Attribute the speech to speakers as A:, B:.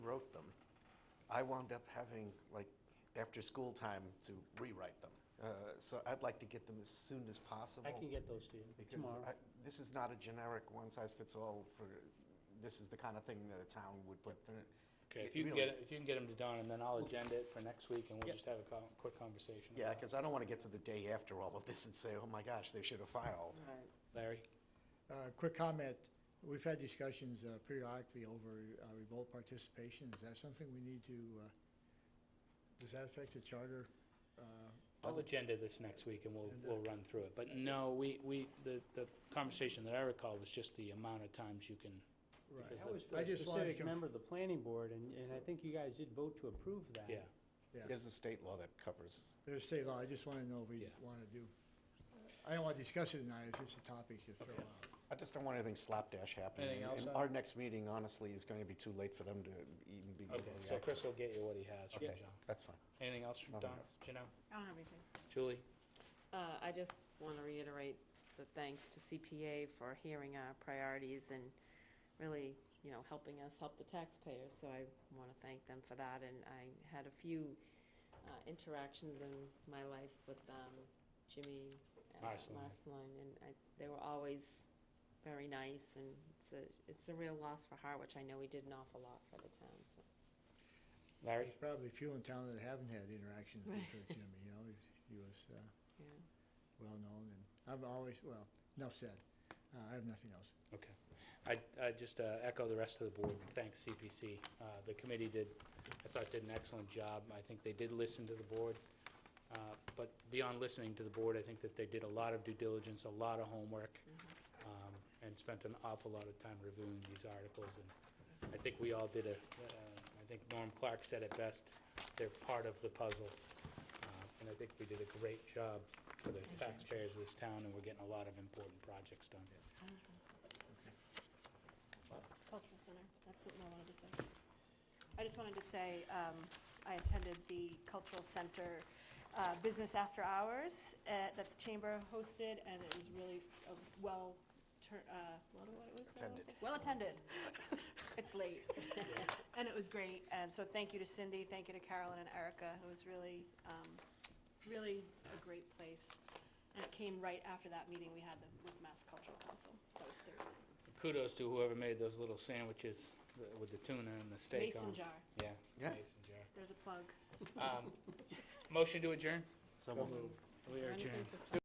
A: wrote them, I wound up having, like, after school time to rewrite them. Uh, So I'd like to get them as soon as possible.
B: I can get those to you
A: Because
B: tomorrow.
A: I- this is not a generic one-size-fits-all for, this is the kind of thing that a town would put through. it
B: Okay, if you can
A: really-
B: get, it- if you can get them to Don, and then I'll agenda it for next week, and we'll
C: Yep.
B: just have a co- quick conversation.
A: Yeah,
B: about it.
A: because I don't want to get to the day after all of this and say, oh my gosh, they should have filed.
B: Larry,
D: Uh, Quick comment, we've had discussions uh, periodically over uh, remote participation. Is that something we need to, uh, does that affect the charter? Uh,
B: I'll agenda this next week, and we'll,
D: And, uh,
B: we'll run through it. But no, we, we, the, the conversation that I recall was just the amount of times you can,
D: Right,
B: Because
C: That was
B: the-
C: for
D: I
C: a
D: just wanted to
C: specific
D: conf-
C: member of the planning board, and, and I think you guys did vote to approve that.
B: yeah.
D: Yeah.
A: There's a state law that covers.
D: there's state law, I just want to know if we
B: Yeah.
D: want to do. I don't want to discuss it tonight, it's just a topic to throw out.
A: I just don't want anything slapdash happening.
B: Anything else, uh?
A: And
B: Adam?
A: our next meeting, honestly, is going to be too late for them to even be.
B: Okay, so
A: reacting.
B: Chris will get you what he has from
A: Okay,
B: John.
A: that's fine.
B: Anything else from
A: Nothing
B: Don,
A: else.
B: Janelle,
E: I don't have anything.
B: Julie?
E: Uh, I just want to reiterate the thanks to CPA for hearing our priorities and really, you know, helping us help the taxpayers. So I want to thank them for that. And I had a few uh, interactions in my life with um, Jimmy uh,
B: Marceline.
E: Marceline, and I, they were always very nice. And it's a, it's a real loss for Harwich. I know we did an awful lot for the town, so.
B: Larry?
D: There's probably few in town that haven't had interactions with uh, Jimmy, you know, he- he was uh,
E: Yeah.
D: well-known, and I've always, well, enough said. Uh, I have nothing else.
B: Okay. I, I just uh, echo the rest of the board, and thank CPC. Uh, The committee did, I thought did an excellent job. I think they did listen to the board. Uh, But beyond listening to the board, I think that they did a lot of due diligence, a lot of homework, um, and spent an awful lot of time reviewing these articles. And I think we all did a, uh, I think Norm Clark said it best, they're part of the puzzle. Uh, And I think we did a great job for the taxpayers of this town, and we're getting a lot of important projects done.
F: Cultural Center, that's something I wanted to say. I just wanted to say, um, I attended the Cultural Center uh, Business After Hours at- that the Chamber hosted, and it was really a well, tur- uh, what do- what was that?
A: Attended.
F: Well attended. It's late. And it was great, and so thank you to Cindy, thank you to Carolyn and Erica, it was really, um, really a great place. And it came right after that meeting we had the- with Mass Cultural Council, that was Thursday.
B: kudos to whoever made those little sandwiches th- with the tuna and the steak on.
F: Mason jar,
B: Yeah.
A: Yeah.
B: Mason jar.
F: there's a plug.
B: Um, Motion to adjourn?
A: So moved.
B: We are
E: Anything
B: adjourned.
E: to say?